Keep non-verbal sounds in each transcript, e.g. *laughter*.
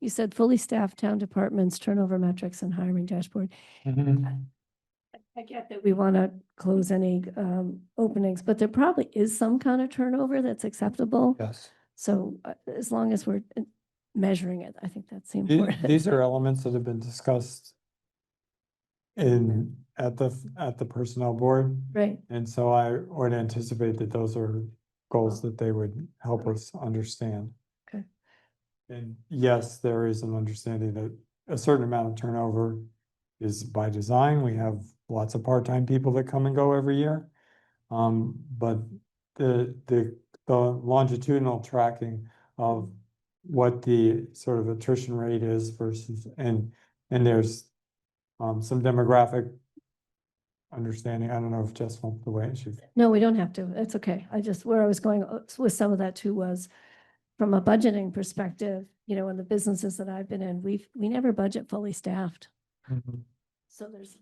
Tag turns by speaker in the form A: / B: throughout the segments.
A: You said fully staffed town departments, turnover metrics and hiring dashboard. I get that we want to close any um, openings, but there probably is some kind of turnover that's acceptable.
B: Yes.
A: So uh, as long as we're uh, measuring it, I think that's the
B: The-
A: important.
B: These are elements that have been discussed in, at the, at the personnel board.
A: *laughs* Right,
B: And so I would anticipate that those are goals that they would help us understand.
A: Okay.
B: And yes, there is an understanding that a certain amount of turnover is by design. We have lots of part-time people that come and go every year. Um, but the, the, the longitudinal tracking of what the sort of attrition rate is versus, and, and there's um, some demographic understanding. I don't know if Jess wants the way she
A: no, we don't have to. That's okay. I just, where I was going uh, with some of that too was from a budgeting perspective, you know, in the businesses that I've been in, we've, we never budget fully staffed. So there's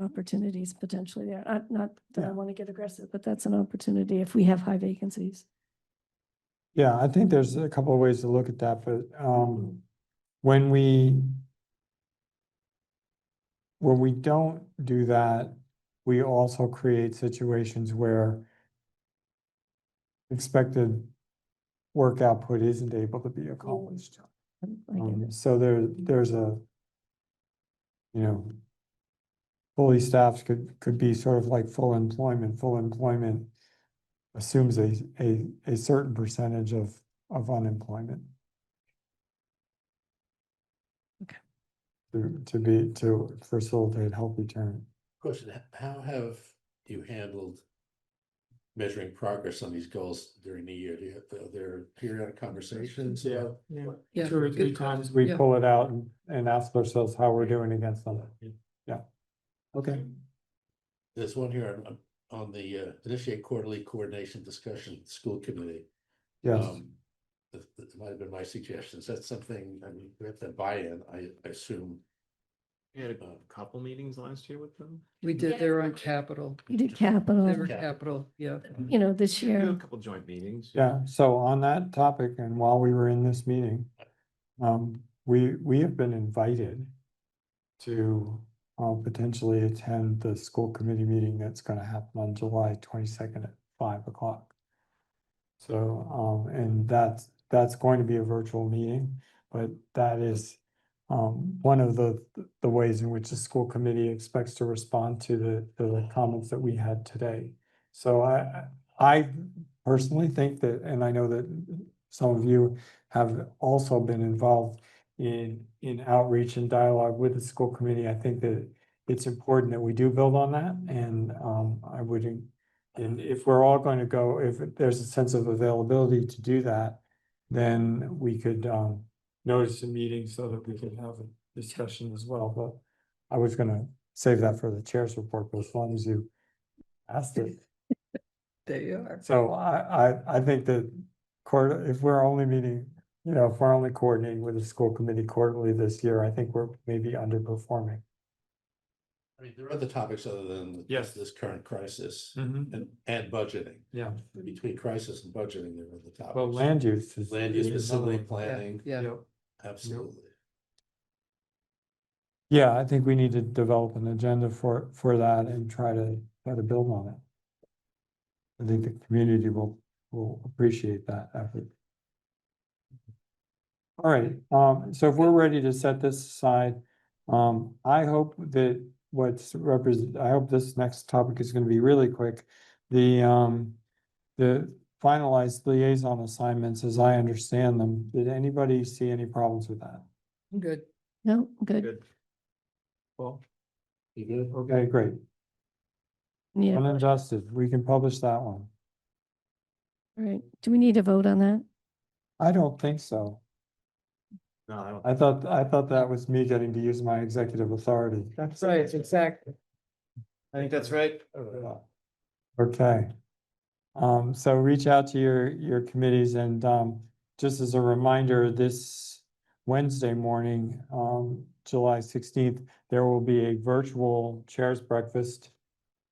A: opportunities potentially there. I- Not that I
B: Yeah.
A: want to get aggressive, but that's an opportunity if we have high vacancies.
B: Yeah, I think there's a couple of ways to look at that, but um, when we when we don't do that, we also create situations where expected work output isn't able to be accomplished.
A: Um, I get it.
B: Um, so there, there's a, you know, fully staffed could, could be sort of like full employment. Full employment assumes a, a, a certain percentage of, of unemployment.
A: Okay.
B: To, to be, to facilitate healthy turn.
C: Question, h- how have you handled measuring progress on these goals during the year? Do you have, are there periodic conversations?
B: Yeah.
C: about what-
D: Yeah,
B: Two or
D: good
B: three
D: call.
B: times we
D: Yeah.
B: pull it out and, and ask ourselves how we're doing against them. Okay.
C: There's one here on- on, on the uh, initiate quarterly coordination discussion, school committee.
B: Yes,
C: Um, That, that might have been my suggestions. That's something, I mean, we have to buy in, I, I assume.
E: We had a
C: Uh,
E: couple meetings last year with them.
D: We
A: Yeah.
D: did, they were on capital,
A: You did
D: they
A: capital,
D: were
C: Capital.
D: capital, yeah.
A: you know, this
E: We had A
A: year.
E: couple joint meetings.
B: yeah, so on that topic, and while we were in this meeting, um, we, we have been invited to, uh, potentially attend the school committee meeting that's gonna happen on July twenty-second at five o'clock. So, um, and that's, that's going to be a virtual meeting, but that is, um, one of the, the ways in which the school committee expects to respond to the, the comments that we had today. So I, I personally think that, and I know that some of you have also been involved in, in outreach and dialogue with the school committee. I think that it's important that we do build on that and, um, I would, en- and if we're all going to go, if there's a sense of availability to do that, then we could, um, notice a meeting so that we can have a discussion as well, but I was gonna save that for the chair's report, but as long as you asked it.
D: They are.
B: So I, I, I think that quarter, if we're only meeting, you know, if we're only coordinating with the school committee quarterly this year, I think we're maybe underperforming.
C: I mean, there are other topics other than
B: Yes. Hmm.
C: just this current crisis and, and budgeting.
B: Yeah,
C: Between crisis and budgeting, there are the topics.
B: well, land use is.
C: Land use
B: is another
C: facility
B: one.
C: planning,
D: Yeah,
B: Yep.
C: absolutely.
B: Yeah, I think we need to develop an agenda for, for that and try to, try to build on it. I think the community will, will appreciate that effort. All right, um, so if we're ready to set this aside, um, I hope that what's represent, I hope this next topic is gonna be really quick. The, um, the finalized liaison assignments, as I understand them, did anybody see any problems with that?
D: I'm good.
A: No, good.
E: Good. Well,
C: You good?
B: Okay, great.
A: Yeah, all
B: Unadjusted, we can publish that one.
A: right. Do we need a vote on that?
B: I don't think so.
E: no, I don't.
B: I thought, I thought that was me getting to use my executive authority.
D: That's right, exactly.
E: I think that's right.
B: Okay. Um, so reach out to your, your committees and, um, just as a reminder, this Wednesday morning, um, July sixteenth, there will be a virtual chairs breakfast.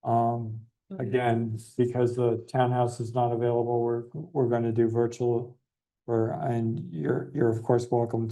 B: Um,
D: Mm-hmm.
B: again, because the townhouse is not available, we're, we're gonna do virtual. Or, and you're, you're of course welcome